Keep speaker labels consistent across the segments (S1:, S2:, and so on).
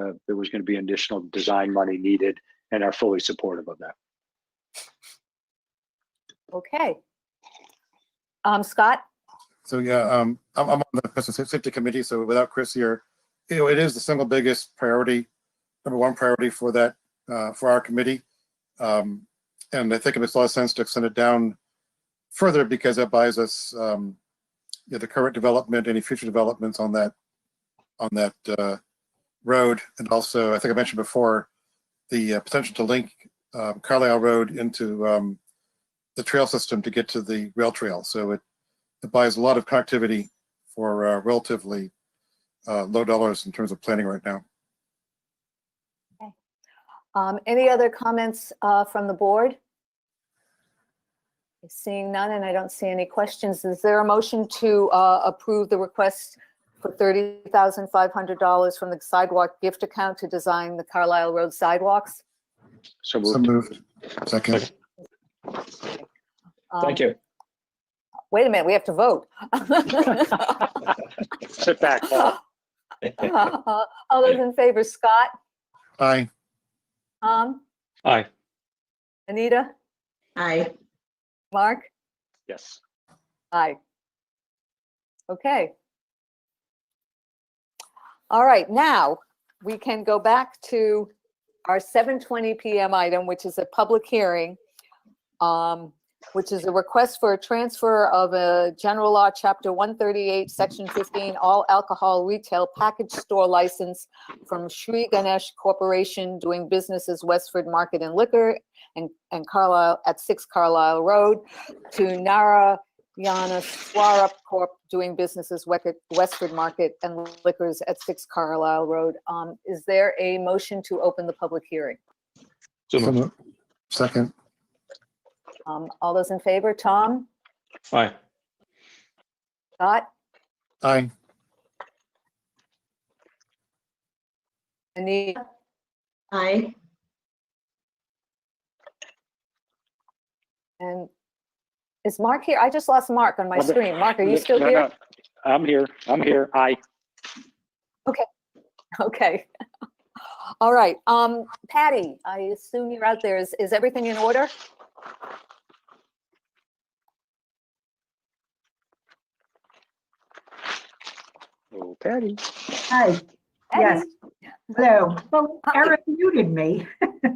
S1: uh, there was going to be additional design money needed and are fully supportive of that.
S2: Okay. Um, Scott,
S3: So yeah, um, I'm, I'm on the Person Sa- Safety Committee, so without Chris here, you know, it is the single biggest priority, number one priority for that, uh, for our committee. Um, and I think it makes a lot of sense to extend it down further because that buys us, um, you know, the current development, any future developments on that, on that, uh, road. And also, I think I mentioned before, the uh, potential to link, um, Carlisle Road into, um, the trail system to get to the rail trail. So it it buys a lot of connectivity for uh, relatively uh, low dollars in terms of planning right now.
S2: um, any other comments, uh, from the board? Seeing none, and I don't see any questions. Is there a motion to, uh, approve the request for thirty thousand five hundred dollars from the sidewalk gift account to design the Carlisle Road sidewalks?
S1: So
S3: So
S1: moved.
S3: moved. Second.
S2: Um,
S4: Thank you.
S2: Wait a minute, we have to vote.
S1: Sit back, Paul.
S2: All those in favor, Scott,
S3: Aye.
S2: Tom,
S4: Aye.
S2: Anita,
S5: Aye.
S2: Mark?
S1: Yes.
S2: Aye. Okay. All right, now we can go back to our 7:20 PM item, which is a public hearing, um, which is a request for a transfer of a general law, chapter 138, section 15, all alcohol retail package store license from Sri Ganesh Corporation doing business as Westford Market and Liquor and and Carlisle, at 6 Carlisle Road, to Nara Yana Swarup Corp. doing business as Weca- Westford Market and Liquors at 6 Carlisle Road. Um, Is there a motion to open the public hearing?
S4: So
S3: So
S4: moved.
S3: moved. Second.
S2: Um, All those in favor, Tom,
S4: Aye.
S2: Scott,
S3: Aye.
S2: Anita,
S5: Aye.
S2: and is Mark here? I just lost Mark on my
S1: Well, the-
S2: screen. Mark, are you still
S1: No, no.
S2: here?
S1: I'm here. I'm here. Aye.
S2: Okay. All right, Um, Patty, I assume you're out there. Is is everything in order?
S1: Oh, Patty.
S5: Aye. Yes.
S2: Patty?
S5: Hello. Well,
S2: Hi.
S6: Eric muted me.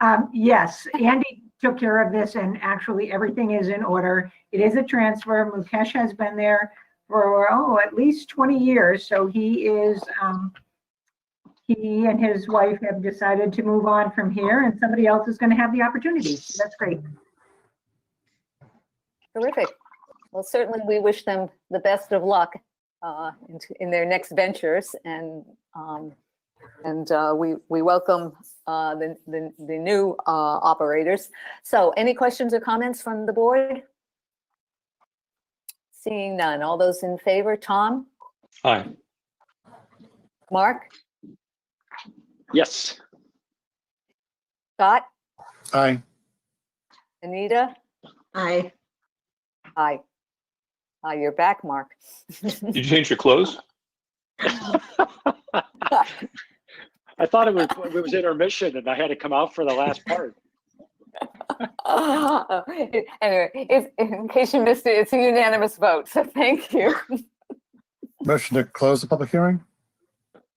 S6: Um, Yes, Andy took care of this and actually everything is in order. It is a transfer. Mukesh has been there for, oh, at least 20 years. So he is, um, he and his wife have decided to move on from here and somebody else is going to have the opportunity. So That's great.
S2: Terrific. Well, certainly we wish them the best of luck uh, in t- in their next ventures and, um, and uh, we, we welcome uh, the, the the new uh, operators. So any questions or comments from the board? Seeing none. All those in favor, Tom,
S4: Aye.
S2: Mark,
S1: Yes.
S2: Scott,
S3: Aye.
S2: Anita?
S5: Aye.
S2: Aye. Aye, you're back, Mark.
S4: Did you change your clothes?
S1: I thought it was, it was intermission and I had to come out for the last part.
S2: Oh, it- Anyway, if, in case you missed it, it's a unanimous vote, so thank you.
S3: Motion to close the public hearing?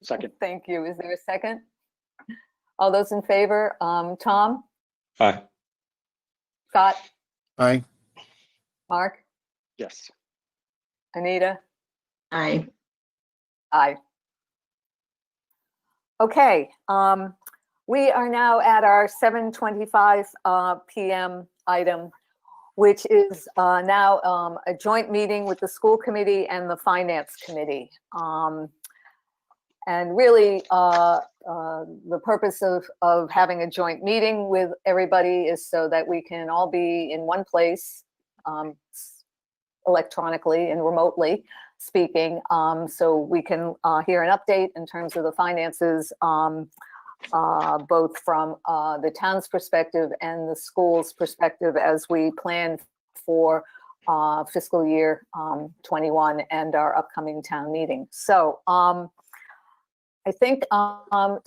S1: Second.
S2: Thank you. Is there a second? All those in favor, um, Tom,
S4: Aye.
S2: Scott,
S3: Aye.
S2: Mark,
S1: Yes.
S2: Anita?
S5: Aye.
S2: Aye. Okay, um, we are now at our 7:25 uh, PM item, which is uh, now um, a joint meeting with the school committee and the finance committee. Um, And really, uh, uh, the purpose of, of having a joint meeting with everybody is so that we can all be in one place um, s- electronically and remotely speaking, um, so we can uh, hear an update in terms of the finances, um, uh, both from uh, the town's perspective and the school's perspective as we plan for uh, fiscal year um, 21 and our upcoming town meeting. So um, I think um,